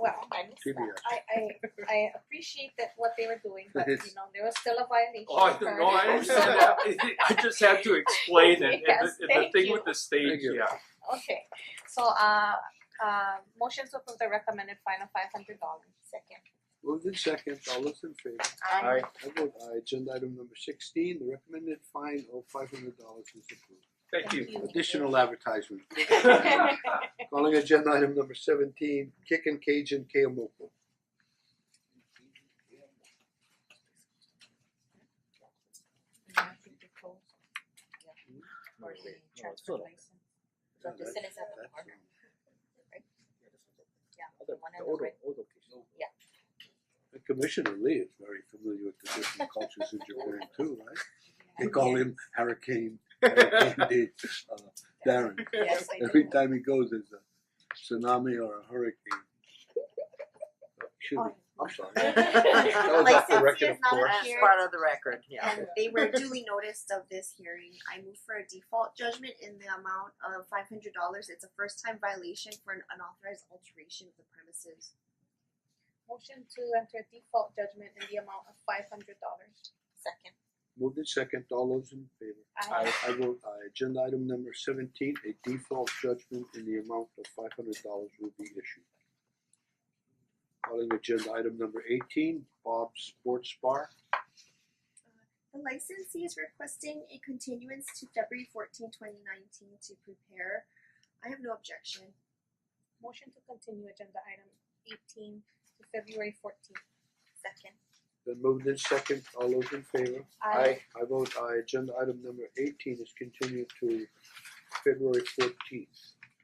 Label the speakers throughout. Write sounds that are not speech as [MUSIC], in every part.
Speaker 1: well, I missed
Speaker 2: Trivia.
Speaker 1: [LAUGHS] that. I, I, I appreciate that what they were doing, but you know, there was still a violation.
Speaker 3: Oh, I
Speaker 1: occurred.
Speaker 3: don't know, I understand that, [LAUGHS] I just have to explain it, and
Speaker 1: Yes,
Speaker 3: the, and
Speaker 1: thank
Speaker 3: the thing
Speaker 1: you.
Speaker 3: with the stage,
Speaker 2: Thank you.
Speaker 1: [LAUGHS]
Speaker 3: yeah,
Speaker 1: Okay, so, uh, uh, motion to approve the recommended fine of five hundred dollars, second.
Speaker 2: Moved in second, all those in favor?
Speaker 1: Aye.
Speaker 2: I vote aye, agenda item number sixteen, the recommended fine of five hundred dollars is approved.
Speaker 3: thank you.
Speaker 1: Thank you.
Speaker 2: Additional advertisement.
Speaker 1: Aye.
Speaker 2: Calling agenda item number seventeen, Kick and Cajun Keomoko.
Speaker 1: For the transfer
Speaker 4: little bit.
Speaker 1: license. So
Speaker 2: That's-
Speaker 1: this is at the
Speaker 2: that's uh,
Speaker 1: corner,
Speaker 2: wrong.
Speaker 1: yeah, the
Speaker 4: Other,
Speaker 1: one
Speaker 4: the
Speaker 1: on the
Speaker 4: old,
Speaker 1: right.
Speaker 4: old location.
Speaker 2: The Commissioner Lee is very familiar with the different cultures in Japan too, right? They call him Hurricane, Hurricane D, uh, Darren.
Speaker 1: [LAUGHS] Yes, I
Speaker 2: Every
Speaker 1: do.
Speaker 2: time he goes, there's a tsunami or a hurricane. Shoot,
Speaker 1: Oh.
Speaker 2: I'm sorry.
Speaker 5: That
Speaker 2: was off Oh, the
Speaker 5: Licensee
Speaker 2: record,
Speaker 5: is not
Speaker 2: of course.
Speaker 5: appeared,
Speaker 6: As part of the record, yeah.
Speaker 5: And they were duly noticed of this hearing. I move for a default judgment in the amount of five hundred dollars. It's a first time violation for an unauthorized alteration of the premises.
Speaker 1: Motion to enter default judgment in the amount of five hundred dollars. Second.
Speaker 2: Moved in second, all those in favor?
Speaker 1: Aye.
Speaker 2: I vote aye. Agenda item number seventeen, a default judgment in the amount of five hundred dollars will be issued. Calling agenda item number eighteen, Bob's Sports Bar.
Speaker 5: The licensee is requesting a continuance to February 14, 2019, to prepare. I have no objection.
Speaker 1: Motion to continue agenda item eighteen to February fourteenth. Second.
Speaker 2: Then moved in second, all those in favor?
Speaker 1: Aye.
Speaker 2: I vote aye. Agenda item number eighteen is continued to February fourteenth,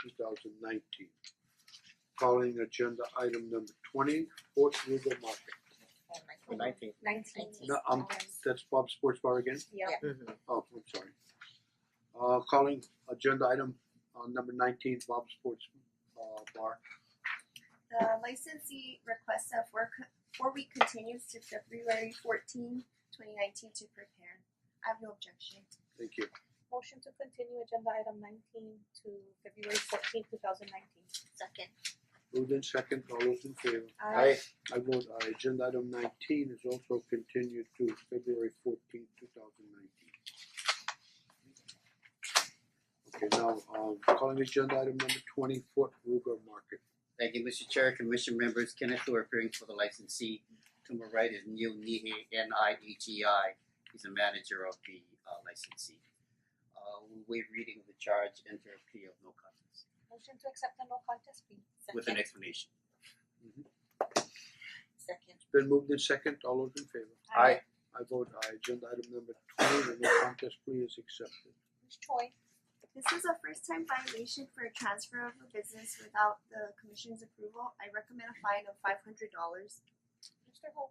Speaker 2: two thousand nineteen. Calling agenda item number twenty, Fort River Market.
Speaker 4: The nineteenth.
Speaker 1: Nineteen.
Speaker 2: No, um, that's Bob's Sports Bar again?
Speaker 1: Yeah.
Speaker 2: Oh, I'm sorry. Uh, calling agenda item uh number nineteen, Bob's Sports uh Bar.
Speaker 5: The licensee requests a four co- four week continuance to February 14, 2019, to prepare. I have no objection.
Speaker 2: Thank you.
Speaker 1: Motion to continue agenda item nineteen to February fourteenth, two thousand nineteen. Second.
Speaker 2: Moved in second, all those in favor?
Speaker 1: Aye.
Speaker 2: I vote aye. Agenda item nineteen is also continued to February fourteenth, two thousand nineteen. Okay, now um calling agenda item number twenty, Fort Ruger Market.
Speaker 7: Thank you, Mr. Chair, Commission members, Kenneth Thor appearing for the licensee. To my right is Neil Nihe, N I H E I. He's the manager of the uh, licensee. Uh, we waive reading of the charge, enter a plea of no contest
Speaker 1: Motion to accept the no contest plea.
Speaker 7: [LAUGHS] with an explanation.
Speaker 1: Second.
Speaker 2: It's been moved in second, all those in favor?
Speaker 1: Aye.
Speaker 2: I vote aye. Agenda item number twenty, the no contest plea is accepted.
Speaker 1: Ms. Choi.
Speaker 5: This is a first time violation for a transfer of a business without the commission's approval. I recommend a fine of five hundred dollars.
Speaker 1: Mr. Ho.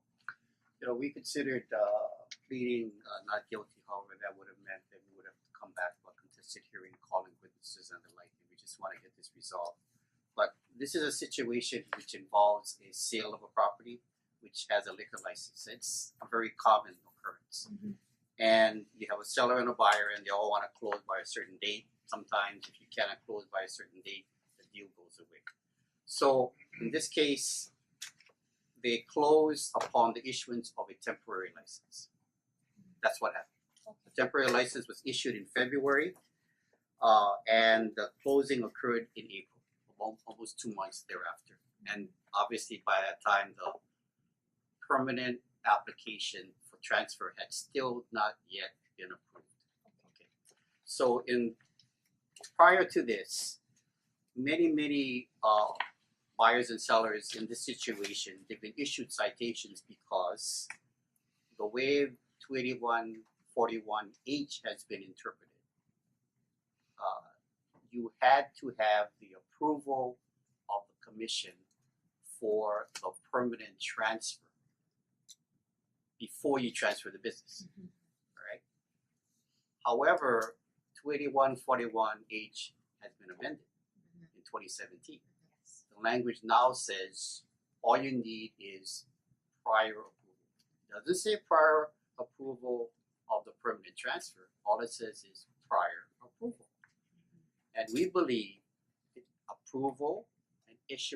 Speaker 7: You know, we considered uh, pleading uh, not guilty, however, that would have meant that we would have to come back for a contested hearing, calling witnesses and the like. and We just want to get this resolved. But this is a situation which involves a sale of a property which has a liquor license. It's a very common occurrence. And you have a seller and a buyer, and they all want to close by a certain date. Sometimes, if you cannot close by a certain date, the deal goes away. So, in this case, they close upon the issuance of a temporary license. That's what happened. The temporary license was issued in February, uh, and the closing occurred in April, al- almost two months thereafter. And obviously, by that time, the permanent application for transfer had still not yet been approved. Okay. So in, prior to this, many, many, uh, buyers and sellers in this situation, they've been issued citations because the way two eighty one forty one H has been interpreted. Uh, you had to have the approval of the commission for the permanent transfer before you transfer the business, alright? However, two eighty one forty one H has been amended in twenty seventeen the language now says all you need is prior approval. Doesn't say prior approval of the permanent transfer, all it says is prior approval. And we believe approval and issuance